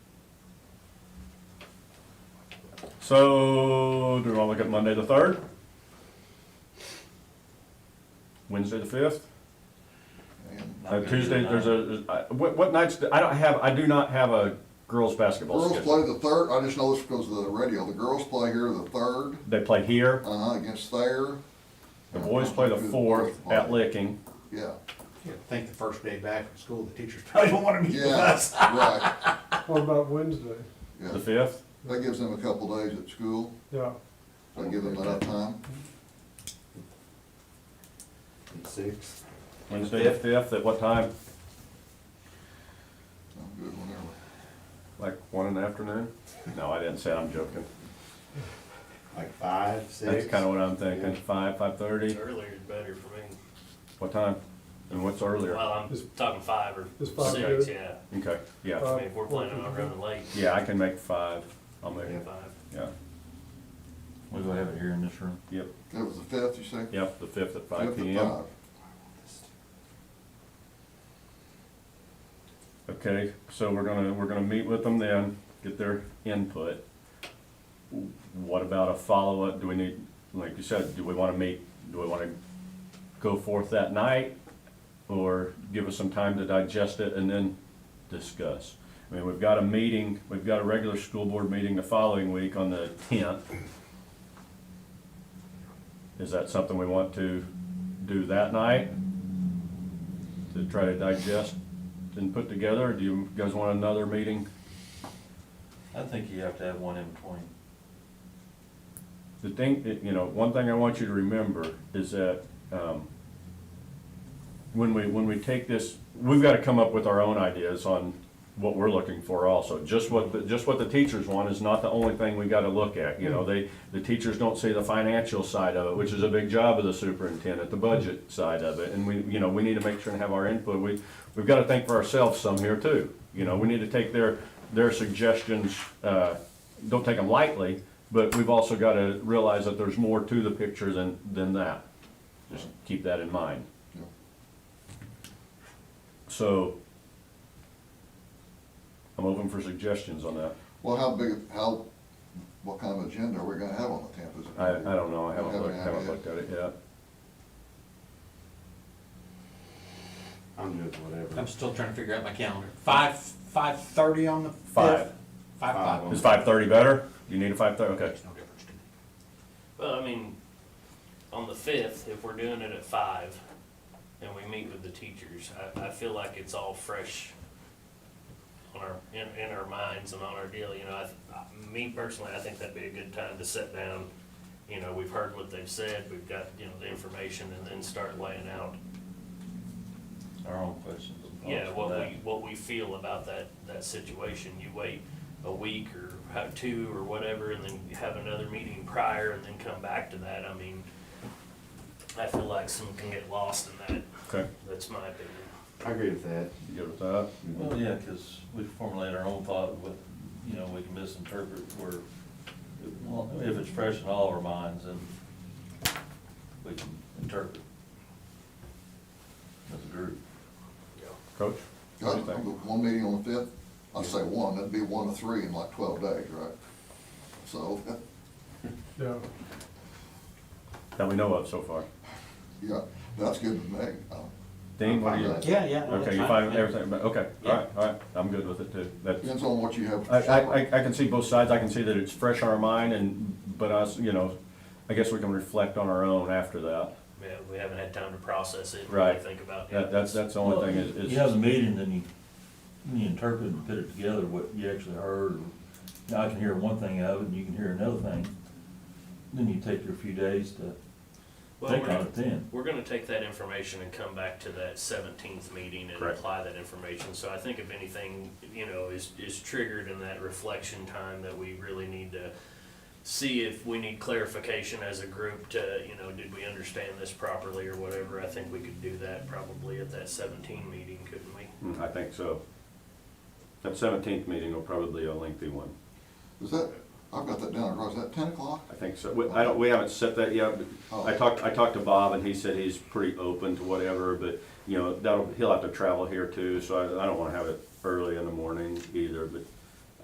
So, do we want to look at Monday the third? Wednesday the fifth? Uh, Tuesday, there's a, I- what, what nights, do- I don't have, I do not have a girls' basketball Girls schedule. play the third, I just know this because of the radio, the girls play here the third, They play here, uh-huh, against Thayer, the boys play the fourth at Licking. yeah, Yeah, I think the first day back from school, the teachers probably don't want to meet with yeah, us. right, What about Wednesday? yeah. The fifth, That gives them a couple days at school, Yeah, so I give them enough time. Six. Wednesday the fifth, at what time? I'm good whenever. Like one in the afternoon? No, I didn't say, I'm joking. Like five, six. That's kinda what I'm thinking, five, five-thirty, Earlier is better for me. what time? And what's earlier? Well, I'm Is- talking five or is five six, good? yeah. Okay, yeah, Five. I mean, if we're planning on running late, yeah, I can make five, I'll make it, five. yeah, We will have it here in this room. yep, That was the fifth, you say? yep, the fifth at five Fifth at P M. five. Okay, so we're gonna, we're gonna meet with them then, get their input. What about a follow-up? Do we need, like you said, do we wanna meet, do we wanna go forth that night? Or give us some time to digest it and then discuss? I mean, we've got a meeting, we've got a regular school board meeting the following week on the tenth. Is that something we want to do that night? To try to digest and put together, or do you guys want another meeting? I think you have to have one in between. The thing, that, you know, one thing I want you to remember is that, um, when we, when we take this, we've gotta come up with our own ideas on what we're looking for also. Just what, the- just what the teachers want is not the only thing we gotta look at, you know, they, the teachers don't see the financial side of it, which is a big job of the superintendent, the budget side of it, and we, you know, we need to make sure and have our input, we, we've gotta think for ourselves some here too. You know, we need to take their, their suggestions, uh, don't take them lightly, but we've also gotta realize that there's more to the picture than, than that. Just keep that in mind. Yeah. So, I'm open for suggestions on that. Well, how big, how, what kind of agenda are we gonna have on the tenth? Is it I, gonna be- I don't know, I haven't Haven't looked, had haven't it. looked at it yet. I'm good, whatever. I'm still trying to figure out my calendar. Five, five thirty on the fifth? Five. Five, Five. five. Is five thirty better? You need a five thirty, okay. Makes no difference to me. Well, I mean, on the fifth, if we're doing it at five and we meet with the teachers, I, I feel like it's all fresh on our, in, in our minds and on our deal, you know, I, I- me personally, I think that'd be a good time to sit down. You know, we've heard what they've said, we've got, you know, the information and then start laying out, Our own questions. and thoughts yeah, for what that. we, what we feel about that, that situation. You wait a week or ho- two or whatever, and then you have another meeting prior, and then come back to that, I mean, I feel like some can get lost in that, Okay, that's my opinion. I agree with that. you good with that? Well, yeah, because we formulate our own thought, what, you know, we can misinterpret where, well, if it's fresh in all our minds, then we can interpret as a group. Coach? Yeah, What do you think? One meeting on the fifth, I'd say one, that'd be one to three in like twelve days, right? So, yeah. That we know of so far. yeah, that's good with me. Uh, Dean, what do you? I'm fine with Yeah, yeah. no, Okay, that's you fine. find Yeah. everything, but, okay, all Yeah. right, all right, I'm good with it too. That's, Depends on what you have. I, for supper. I, I- I can see both sides, I can see that it's fresh on our mind and, but us, you know, I guess we can reflect on our own after that. Yeah, we haven't had time to process it, really Right. think about it. That, that's, that's the only thing is, You have a is, meeting, then you, then you interpret and put it together, what you actually heard, or, now I can hear one thing out of it, and you can hear another thing. Then you take your few days to Well, think we're- on it then. We're gonna take that information and come back to that seventeenth meeting and Correct. apply that information, so I think if anything, you know, is, is triggered in that reflection time that we really need to see if we need clarification as a group to, you know, did we understand this properly or whatever, I think we could do that probably at that seventeen meeting, couldn't we? Mm, I think so. That seventeenth meeting will probably be a lengthy one. Is that, I've got that down, right, is that ten o'clock? I think so. We, I don't, we haven't set that yet, but I talked, I talked to Bob and he said he's pretty open to whatever, but, you know, that'll, he'll have to travel here too, so I, I don't wanna have it early in the morning either, but